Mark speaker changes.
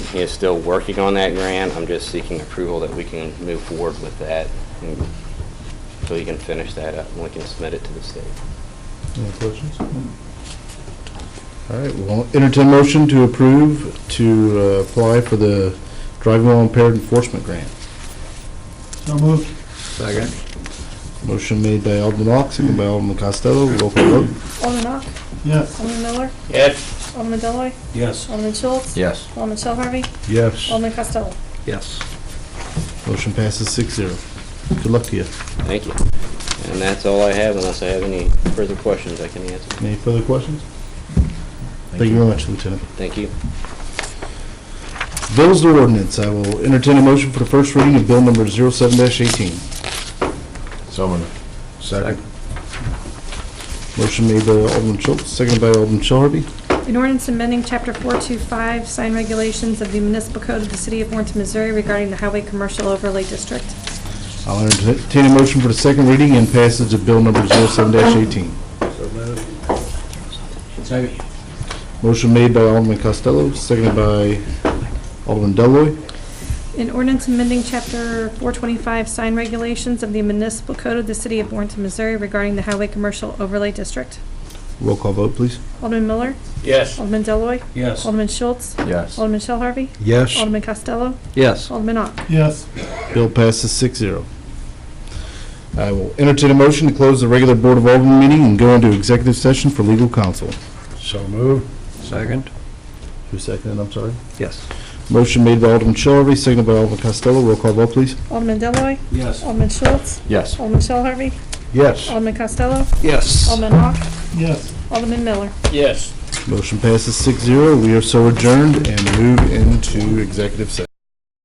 Speaker 1: He is still working on that grant. I'm just seeking approval that we can move forward with that and so he can finish that up and we can submit it to the state.
Speaker 2: Any questions? All right, well, entertain motion to approve to uh, apply for the driving while impaired enforcement grant.
Speaker 3: So moved.
Speaker 4: Second.
Speaker 2: Motion made by Alderman Ock, second by Alderman Costello, roll call vote.
Speaker 5: Alderman Ock,
Speaker 3: Yes.
Speaker 5: Alderman Miller,
Speaker 1: Yes.
Speaker 5: Alderman Deloy,
Speaker 3: Yes.
Speaker 5: Alderman Schultz,
Speaker 4: Yes.
Speaker 5: Alderman Shell Harvey,
Speaker 2: Yes.
Speaker 5: Alderman Costello.
Speaker 4: Yes.
Speaker 2: Motion passes six zero. Good luck to you.
Speaker 1: Thank you. And that's all I have unless I have any further questions I can answer.
Speaker 2: Any further questions? Thank you very much, Lieutenant.
Speaker 1: Thank you.
Speaker 2: Bills and ordinance, I will entertain a motion for the first reading of bill number zero seven dash eighteen.
Speaker 4: So moved. Second.
Speaker 2: Motion made by Alderman Schultz, second by Alderman Shell Harvey.
Speaker 5: An ordinance amending Chapter 425, sign regulations of the municipal code of the city of Warrenton, Missouri regarding the highway commercial overlay district.
Speaker 2: I'll entertain a motion for the second reading and passage of bill number zero seven dash eighteen.
Speaker 4: So moved.
Speaker 3: Second.
Speaker 2: Motion made by Alderman Costello, seconded by Alderman Deloy.
Speaker 5: An ordinance amending Chapter 425, sign regulations of the municipal code of the city of Warrenton, Missouri regarding the highway commercial overlay district.
Speaker 2: Roll call vote, please.
Speaker 5: Alderman Miller,
Speaker 1: Yes.
Speaker 5: Alderman Deloy,
Speaker 3: Yes.
Speaker 5: Alderman Schultz,
Speaker 4: Yes.
Speaker 5: Alderman Shell Harvey,
Speaker 4: Yes.
Speaker 5: Alderman Costello,
Speaker 4: Yes.
Speaker 5: Alderman Ock.
Speaker 3: Yes.
Speaker 2: Bill passes six zero. I will entertain a motion to close the regular Board of Alderman meeting and go into executive session for legal counsel.
Speaker 4: So moved. Second.
Speaker 2: Who seconded, I'm sorry?
Speaker 4: Yes.
Speaker 2: Motion made by Alderman Shelby, seconded by Alderman Costello. Roll call vote, please.
Speaker 5: Alderman Deloy,
Speaker 3: Yes.
Speaker 5: Alderman Schultz,
Speaker 4: Yes.
Speaker 5: Alderman Shell Harvey,
Speaker 4: Yes.
Speaker 5: Alderman Costello,
Speaker 4: Yes.
Speaker 5: Alderman Ock,
Speaker 3: Yes.
Speaker 5: Alderman Miller.
Speaker 1: Yes.
Speaker 2: Motion passes six zero. We are so adjourned and move into executive session.